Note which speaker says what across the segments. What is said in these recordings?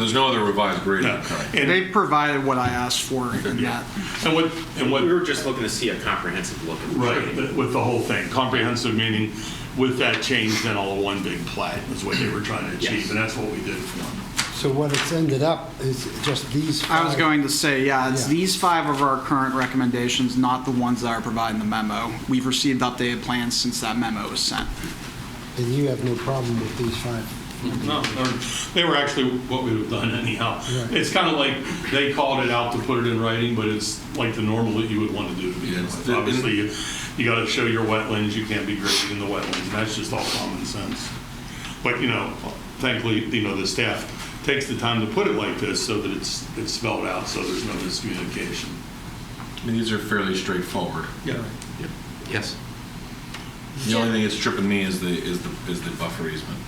Speaker 1: There's no other revised grading.
Speaker 2: No.
Speaker 1: Okay.
Speaker 2: And,
Speaker 3: They provided what I asked for in that.
Speaker 2: and what, and what
Speaker 4: We were just looking to see a comprehensive look at the
Speaker 2: Right,
Speaker 4: grading.
Speaker 2: th- with the whole thing, comprehensive meaning with that change, then all one big plat is what they were trying to achieve,
Speaker 4: Yes.
Speaker 2: and that's what we did for them.
Speaker 5: So what it's ended up is just these
Speaker 3: I was
Speaker 5: five.
Speaker 3: going to say, yeah, it's
Speaker 5: Yeah.
Speaker 3: these five of our current recommendations, not the ones that are providing the memo. We've received updated plans since that memo was sent.
Speaker 5: And you have no problem with these five.
Speaker 2: No, they're- they were actually what we would have done anyhow.
Speaker 5: Right.
Speaker 2: It's kind of like, they called it out to put it in writing, but it's like the normal that you would want to do. to begin
Speaker 1: Yes.
Speaker 2: with. Obviously, you- you got to show your wetlands, you can't be grazing in the wetlands, and that's just all common sense. But, you know, thankfully, you know, the staff takes the time to put it like this so that it's, it's spelled out, so there's no miscommunication.
Speaker 1: I mean, These are fairly straightforward.
Speaker 2: Yeah.
Speaker 4: Yes.
Speaker 1: The only thing that's tripping me is the, is the, is the buffer easement.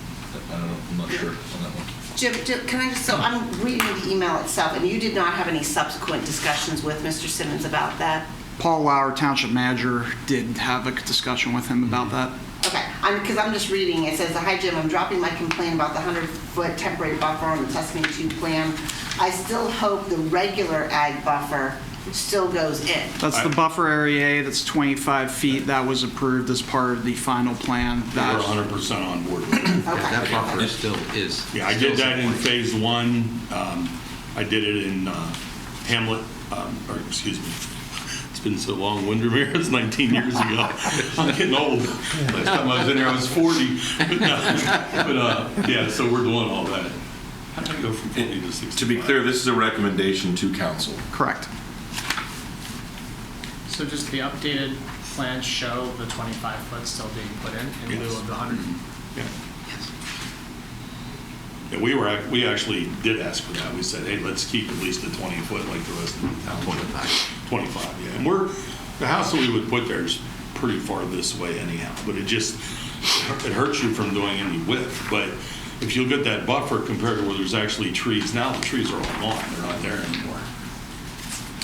Speaker 1: I don't know, I'm not sure on that one.
Speaker 6: Jim, ju- can I just, so I'm reading the email itself, and you did not have any subsequent discussions with Mr. Simmons about that?
Speaker 3: Paul Lauer, Township Manager, did have a good discussion with him about that.
Speaker 6: Okay, I'm, because I'm just reading, it says, "Hi Jim, I'm dropping my complaint about the 100-foot temporary buffer on the Tuscany 2 plan. I still hope the regular ag buffer still goes in."
Speaker 3: That's the buffer area, that's 25 feet, that was approved as part of the final plan.
Speaker 2: We're
Speaker 3: That-
Speaker 2: 100% on board with it.
Speaker 6: Okay.
Speaker 7: That buffer still is.
Speaker 2: Yeah, I did
Speaker 7: still
Speaker 2: that in
Speaker 7: supported.
Speaker 2: phase one. Um, I did it in uh, Hamlet, um, or excuse me, it's been so long, Windermere, it's 19 years ago. I'm getting old. Last time I was in there, I was 40. But, uh, but, uh, yeah, so we're doing all that. How did I go from 40 to 65?
Speaker 1: To be clear, this is a recommendation to council.
Speaker 3: Correct.
Speaker 8: So just the updated plans show the 25 foot still being put in in lieu
Speaker 2: Yes.
Speaker 8: of the 100?
Speaker 2: Yeah. Yeah, we were, ac- we actually did ask for that. We said, hey, let's keep at least the 20 foot like the rest of the town. 25. 25, yeah. And we're, the house that we would put there is pretty far this way anyhow, but it just, it hurts you from doing any width. But if you look at that buffer compared to where there's actually trees, now the trees are all gone, they're not there anymore.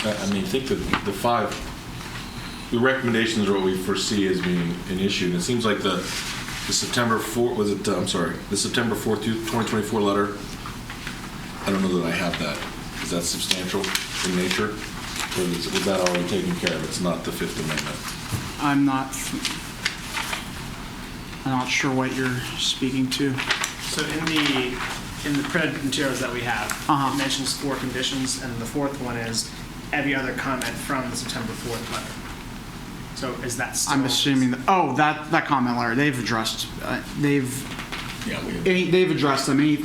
Speaker 1: I I mean, I think that the five, the recommendations are what we foresee as being an issue. And it seems like the, the September 4th, was it, uh, I'm sorry, the September 4th, 2024 letter, I don't know that I have that. Is that substantial in nature? Or is was that already taken care of? It's not the Fifth Amendment.
Speaker 3: I'm not, I'm not sure what you're speaking to.
Speaker 8: So in the, in the printed materials that we have,
Speaker 3: Uh-huh.
Speaker 8: it mentions four conditions, and the fourth one is every other comment from the September 4th letter. So is that still?
Speaker 3: I'm assuming, that- oh, that, that comment letter, they've addressed, uh, they've,
Speaker 2: Yeah, we
Speaker 3: any- they've addressed them, any,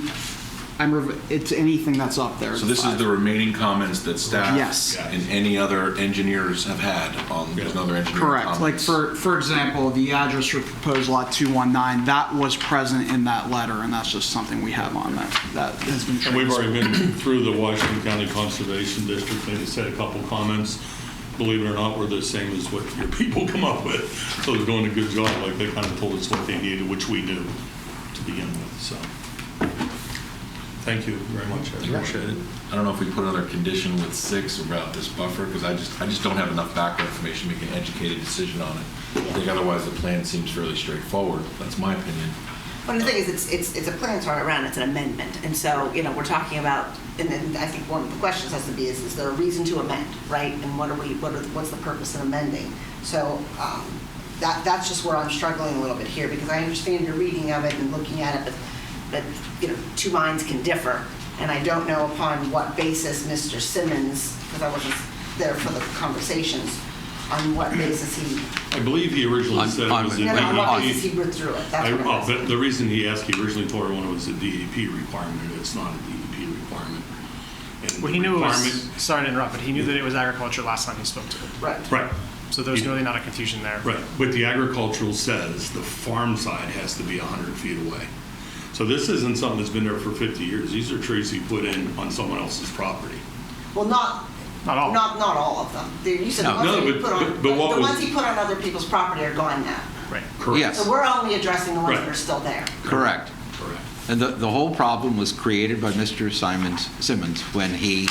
Speaker 3: I'm, rev- it's anything that's up there.
Speaker 1: So this is
Speaker 3: five.
Speaker 1: the remaining comments that staff
Speaker 3: Yes.
Speaker 1: and any other engineers have had on, there's no other engineer
Speaker 3: Correct. Like,
Speaker 1: comments.
Speaker 3: for, for example, the address for proposed lot 219, that was present in that letter, and that's just something we have on that, that has been.
Speaker 2: And we've already been through the Washington County Conservation District, and they said a couple comments, believe it or not, were the same as what your people come up with. So they're doing a good job, like they kind of told us what they needed, which we knew to begin with, so. Thank you very much, I appreciate it.
Speaker 1: I don't know if we put another condition with six about this buffer, because I just, I just don't have enough background information to make an educated decision on it. I think otherwise the plan seems fairly straightforward, that's my opinion.
Speaker 6: Well, the thing is, it's, it's, it's a plan turn around, it's an amendment, and so, you know, we're talking about, and then I think one of the questions has to be is, is there a reason to amend, right? And what are we, what are, what's the purpose of amending? So, um, that, that's just where I'm struggling a little bit here, because I understand your reading of it and looking at it, but, but, you know, two minds can differ, and I don't know upon what basis Mr. Simmons, because I wasn't there for the conversations, on what basis he,
Speaker 2: I believe he originally
Speaker 7: I'm-
Speaker 2: said it
Speaker 7: I'm-
Speaker 2: was a
Speaker 7: The
Speaker 6: no, no, on what basis
Speaker 2: DEP.
Speaker 6: he withdrew it, that's
Speaker 2: I- oh,
Speaker 6: what I'm
Speaker 2: well,
Speaker 6: asking.
Speaker 2: The the reason he asked, he originally told everyone it was a DEP requirement, and it's not a DEP requirement. And the
Speaker 8: Well, he knew it was,
Speaker 2: requirement-
Speaker 8: sorry to interrupt, but he knew that it was agriculture last time he spoke to it.
Speaker 6: Right.
Speaker 2: Right.
Speaker 8: So there's really not a confusion there.
Speaker 2: Right, but the agricultural says the farm side has to be 100 feet away. So this isn't something that's been there for 50 years. These are trees he put in on someone else's property.
Speaker 6: Well, not.
Speaker 8: Not all.
Speaker 6: Not, not all of them. There- You said the
Speaker 7: No.
Speaker 6: ones
Speaker 2: No,
Speaker 6: that he
Speaker 2: but-
Speaker 6: put on,
Speaker 2: but- but what
Speaker 6: the
Speaker 2: was-
Speaker 6: ones he put on other people's property are gone now.
Speaker 8: Right.
Speaker 7: Yes.
Speaker 6: So we're only addressing the ones that
Speaker 2: Right.
Speaker 6: are still there.
Speaker 7: Correct.
Speaker 2: Correct.
Speaker 7: And the, the whole problem was created by Mr. Simons, Simmons, when he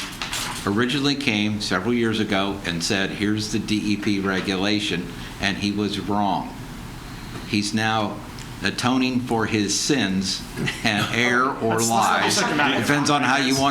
Speaker 7: originally came several years ago and said, E here's the DEP regulation, and he was wrong. He's now
Speaker 8: atoning for his sins and error or
Speaker 7: That's- that's not
Speaker 8: lies.
Speaker 7: the second matter.
Speaker 8: Depends on how you want